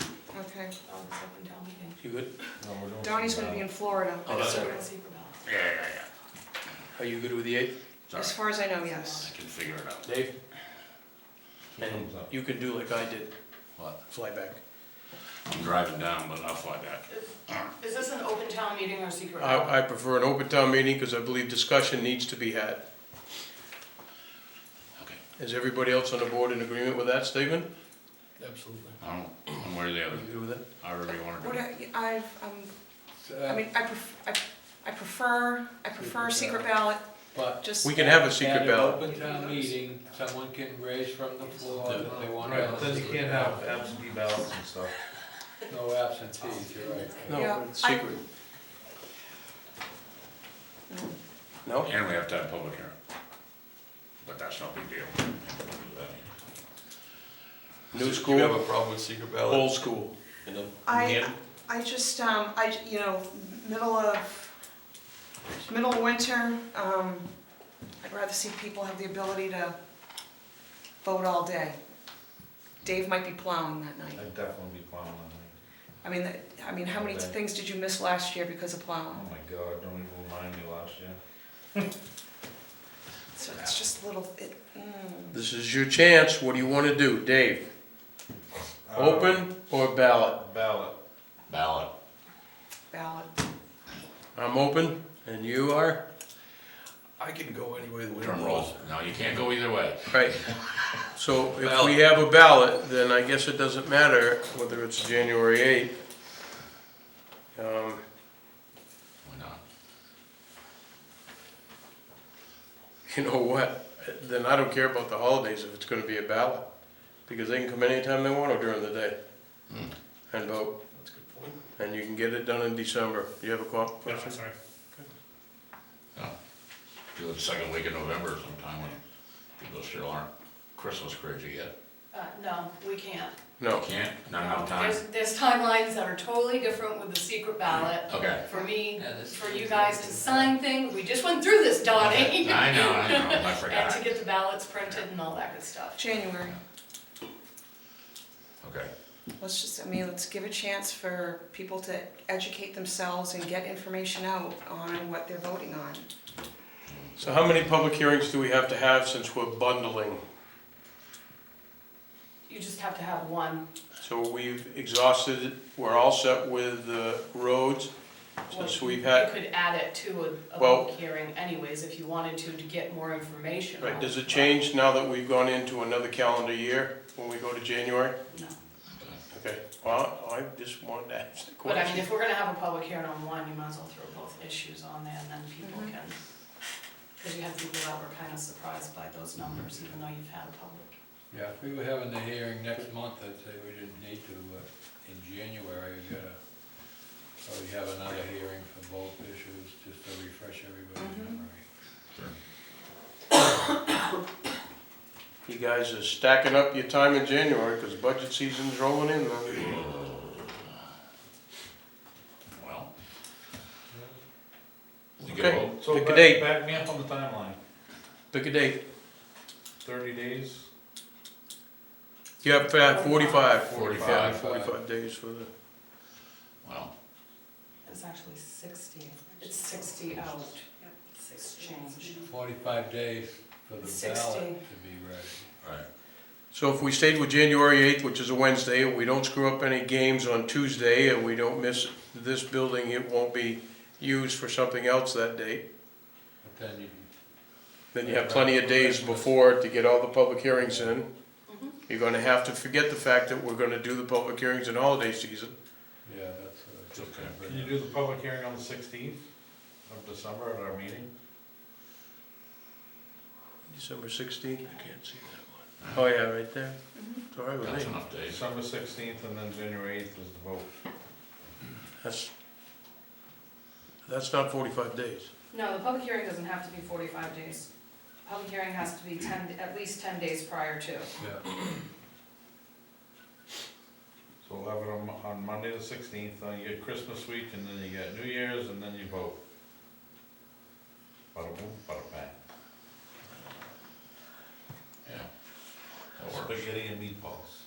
Okay, I'll just up and down again. You good? No, we're doing Donnie's some gonna be ballot. in Florida, Oh, that's so we're okay. gonna see for Bella. Yeah, yeah, Are you good with the eighth? yeah. As Sorry, far as I know, I yes. can figure it out. Dave? He And comes up. you can do like I did, What? fly back. I'm driving down, but I'll fly back. Is this an open town meeting or secret? I, I prefer an open town meeting because I believe discussion needs to be had. Okay. Is everybody else on the board in agreement with that statement? Absolutely. I don't, one way or the Are other, you good with that? however you wanna What do it. I, I've, um, Uh, I mean, I pref, I, I prefer, I prefer secret ballot, But just. We can have a at secret an ballot. open town meeting, someone can raise from the floor what they want. Right, but then you to- can't have absentee ballots and stuff. No absentees, you're right. Yeah, No, it's I- secret. No? And we have to have public hearing. But that's no big deal. New Do you have school, a problem with secret ballot? old school. you know? I, I just, um, I, you know, middle of, middle of winter, um, I'd rather see people have the ability to vote all day. Dave might be plowing that night. I'd definitely be plowing on that. I mean, that- I mean, how many Okay. things did you miss last year because of Oh plowing? my God, don't even remind me last year. So it's just little, it, mm. This is your chance, what do you wanna do, Dave? Uh, Open or ballot? Ballot. Ballot. ballot. I'm open, and you are? I can go any way the wind Drum blows. rolls. No, you can't go either way. Right. So if we have a ballot, then I guess it doesn't matter whether it's January eighth. Um, Why not? you know what, then I don't care about the holidays if it's gonna be a ballot, because they can come anytime they want or during the day and vote. That's a good point. And you can get it done in December. You have a que- question? Do it second week in November sometime when people still aren't Christmas crazy yet. Uh, no, we can't. No. Can't, not enough time. There's, there's timelines that are totally different with the secret ballot. Okay. For me, Yeah, this for is- you guys to sign thing, we just went through this, I Donnie. know, I know, I And to forgot. get the ballots printed and all that good stuff. January, Okay, let's just, I mean, let's give a chance for people to educate themselves and get information out on what they're voting on. So how many public hearings do we have to have since we're bundling? You just have to have one. So we've exhausted, we're all set with the roads, since we've You had, could add it to a, a Well- public hearing anyways, if you wanted to, to get more information. right, on does it but change now that we've gone into another calendar year when we go to January? No. Okay, well, I just wanted to ask the But I mean, question. if we're gonna have a public hearing on one, you might as well throw both issues on there and then people Mhm. can. Cause you have people that were kinda surprised by those numbers, even though you've had a public Yeah, if we were having the hearing next month, I'd say we didn't need to, but in January, we gotta probably have another hearing for both issues, just to refresh Mm-hmm. everybody's memory. You guys are stacking up your time in January, because budget season's rolling in, man. well. We can Okay. vote. So Pick a back- date. Back me up on the timeline, Pick a date, thirty days? you have to have forty-five. Yeah, 45, Forty-five days for the, well, It's actually sixty, it's sixty out, six change. Forty-five days for the ballot Sixty. to be ready. right, so if we stayed with January eighth, which is a Wednesday, and we don't screw up any games on Tuesday, and we don't miss this building, it won't be used for something else that date. But then you, Then you have plenty of days before to get all the public hearings in. You're gonna have to forget the fact that we're gonna do the public hearings in holiday season. yeah, that's what I was just gonna Okay. bring Can you up. do the public hearing on the sixteenth of December at our meeting? December sixteenth, I can't see that one. Oh, yeah, right there. It's all right that's with me. enough days. December sixteenth and then January eighth is the vote. That's, that's not forty-five days. No, the public hearing doesn't have to be forty-five days. Public hearing has to be ten, at least ten days prior to. Yeah, So we'll have it on, Mo- on Monday the sixteenth, then you get Christmas week, and then you get New Year's, and then you vote. Bada boom, bada bang. Yeah. That works. Spaghetti and meatballs.